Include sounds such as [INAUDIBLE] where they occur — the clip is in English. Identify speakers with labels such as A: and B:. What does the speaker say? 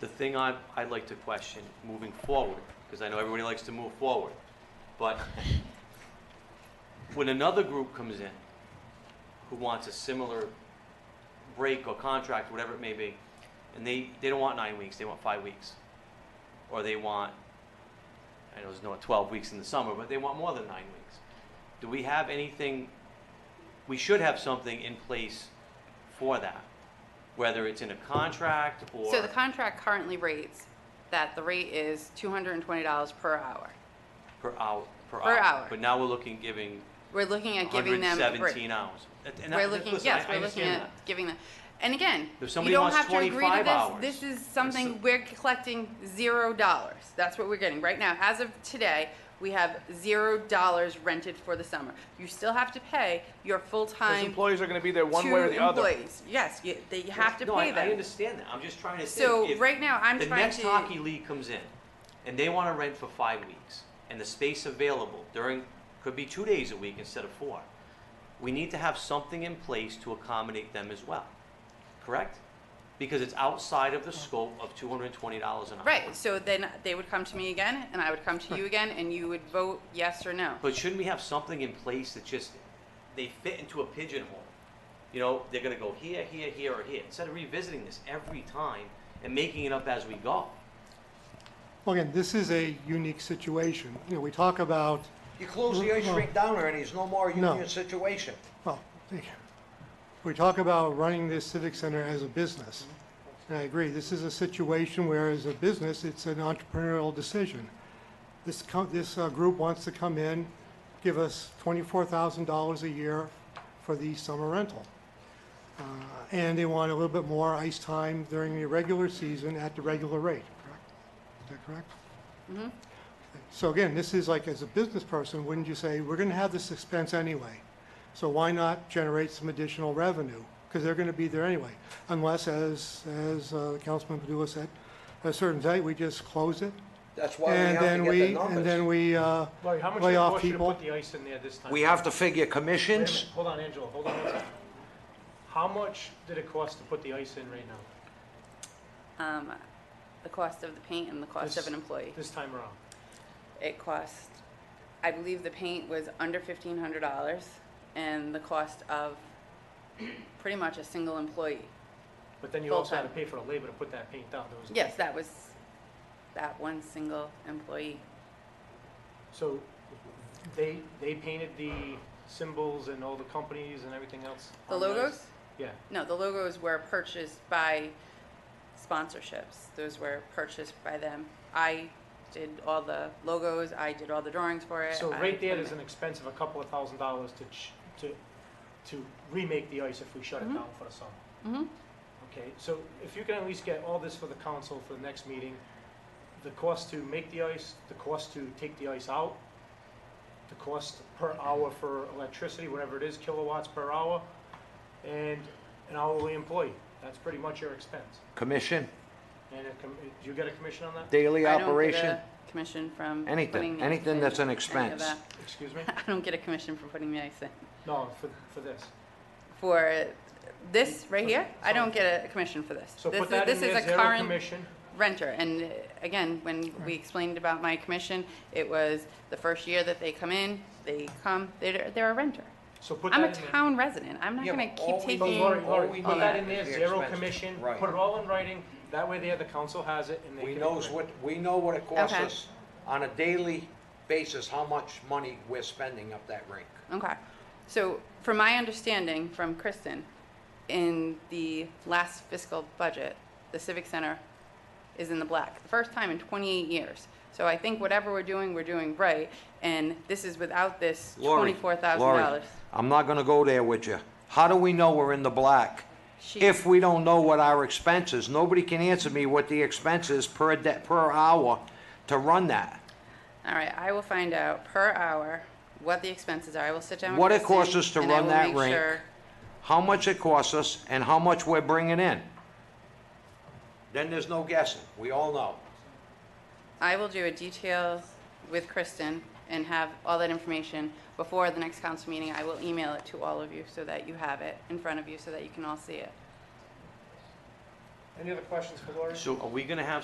A: The thing I, I'd like to question moving forward, because I know everybody likes to move forward, but when another group comes in who wants a similar break or contract, whatever it may be, and they, they don't want nine weeks, they want five weeks. Or they want, I know there's no twelve weeks in the summer, but they want more than nine weeks. Do we have anything, we should have something in place for that, whether it's in a contract or.
B: So the contract currently rates that the rate is $220 per hour.
A: Per hour, per hour.
B: Per hour.
A: But now we're looking, giving
B: We're looking at giving them a break.
A: 117 hours. And- and I-
B: We're looking,
A: listen,
B: yes,
A: I- I
B: we're looking
A: understand
B: at giving them, and again,
A: If
B: you
A: somebody
B: don't
A: wants
B: have to agree
A: 25
B: to
A: hours,
B: this. This is
A: it's
B: something,
A: a-
B: we're collecting zero dollars. That's what we're getting. Right now, as of today, we have zero dollars rented for the summer. You still have to pay your
C: Those
B: full-time
C: employees are going to be there one
B: two
C: way or the other.
B: employees. Yes, you, they you
A: that.
B: have to
A: No, I-
B: pay
A: I
B: them.
A: understand that, I'm just trying to think.
B: So
A: if
B: right now, I'm
A: The
B: trying
A: next hockey
B: to,
A: league comes in, and they want to rent for five weeks, and the space available during, could be two days a week instead of four. We need to have something in place to accommodate them as well, correct? Because it's outside of the scope of $220 an hour.
B: right, so then they would come to me again, and I would come to you again, and you would vote yes or no.
A: But shouldn't we have something in place that just they fit into a pigeonhole? You know, they're gonna go here, here, here, or here instead of revisiting this every time and making it up as we go.
D: Well, again, this is a unique situation. You know, we talk about,
E: You close the ice
D: No.
E: rink down there and there's no more
D: No.
E: union situation.
D: well, we talk about running this civic center as a business. And I agree, this is a situation where as a business, it's an entrepreneurial decision. This, co- this uh, group wants to come in, give us twenty-four thousand dollars a year for the summer rental. Uh, And they want a little bit more ice time during the regular season at the regular rate, correct? Is that correct? So again, this is like, as a business person, wouldn't you say, we're gonna have this expense anyway? So why not generate some additional revenue? Because they're gonna be there anyway. Unless, as, as uh, Councilman Padula said, at a certain date, we just close it.
E: That's why we
D: And
E: have
D: then
E: to get the
D: we, and then
E: numbers.
D: we, uh,
F: Larry, how much did
D: lay
F: it
D: off
F: cost you to
D: people.
F: put the ice in there this time?
E: We have to figure
F: Wait a minute.
E: commissions.
F: Hold on, Angela, hold on one second. How much did it cost to put the ice in right now,
B: Um, the cost of the paint and the cost of an employee.
F: this time around?
B: It cost, I believe the paint was under fifteen hundred dollars and the cost of pretty much a single employee.
F: But then you also had to
B: Full-time.
F: pay for the labor to put that paint down, there was.
B: Yes, that was that one single employee.
F: So they, they painted the symbols and all the companies and everything else?
B: The
F: on ice?
B: logos?
F: Yeah,
B: No, the logos were purchased by sponsorships. Those were purchased by them. I did all the logos, I did all the drawings for it.
F: so
B: I
F: right there
B: put
F: is
B: them
F: an expense of a couple of thousand dollars to, ch- to, to remake the ice if we shut
B: Mm-hmm.
F: it down for the summer.
B: Mhm.
F: Okay, so if you can at least get all this for the council for the next meeting, the cost to make the ice, the cost to take the ice out, the cost per hour for electricity, whatever it is, kilowatts per hour, and an hourly employee. That's pretty much your expense.
E: Commission,
F: And it com- do you get a commission on that?
E: daily
B: I don't get
E: operation.
B: a Commission from.
E: Anything,
B: putting the
E: anything
B: ice
E: that's
B: in,
E: an
B: any of
E: expense.
B: that. [LAUGHS]
F: Excuse me?
B: I don't get a commission for putting the ice in.
F: No, for, for this.
B: For this right here, I don't get a commission for this.
F: So
B: This
F: put
B: is-
F: that in
B: This
F: there,
B: is a
F: zero
B: current
F: commission.
B: renter, and uh, again, when we explained about my commission, it was the first year that they come in, they come, they're, they're a renter.
F: So put that
B: I'm
F: in
B: a
F: there.
B: town resident, I'm not
E: Yeah,
B: gonna
E: but all
B: keep
E: we
F: But
E: need-
B: taking,
F: Lori,
E: all
F: Lori,
E: we
F: put
E: need
F: that in there,
E: is the
F: zero
E: expenses.
F: commission,
E: Right.
F: put it all in writing, that way there, the council has it and they can.
E: We knows
F: agree.
E: what, we know what it costs
B: Okay.
E: us on a daily basis, how much money we're spending up that rink.
B: okay. So, from my understanding from Kristen, in the last fiscal budget, the Civic Center is in the black, the first time in 28 years. So I think whatever we're doing, we're doing right, and this is without this
E: Lori,
B: $24,000.
E: Lori, I'm not gonna go there with you. How do we know we're in the black?
B: She-
E: If we don't know what our expense is, nobody can answer me what the expense is per de, per hour to run that.
B: All right, I will find out per hour what the expenses are. I will sit down with
E: What it
B: Kristen,
E: costs us to
B: and I
E: run
B: will
E: that
B: make
E: rink.
B: sure-
E: how much it costs us and how much we're bringing in. Then there's no guessing, we all know.
B: I will do a details with Kristen and have all that information before the next council meeting. I will email it to all of you so that you have it in front of you so that you can all see it.
F: Any other questions for Lori?
A: So are we gonna have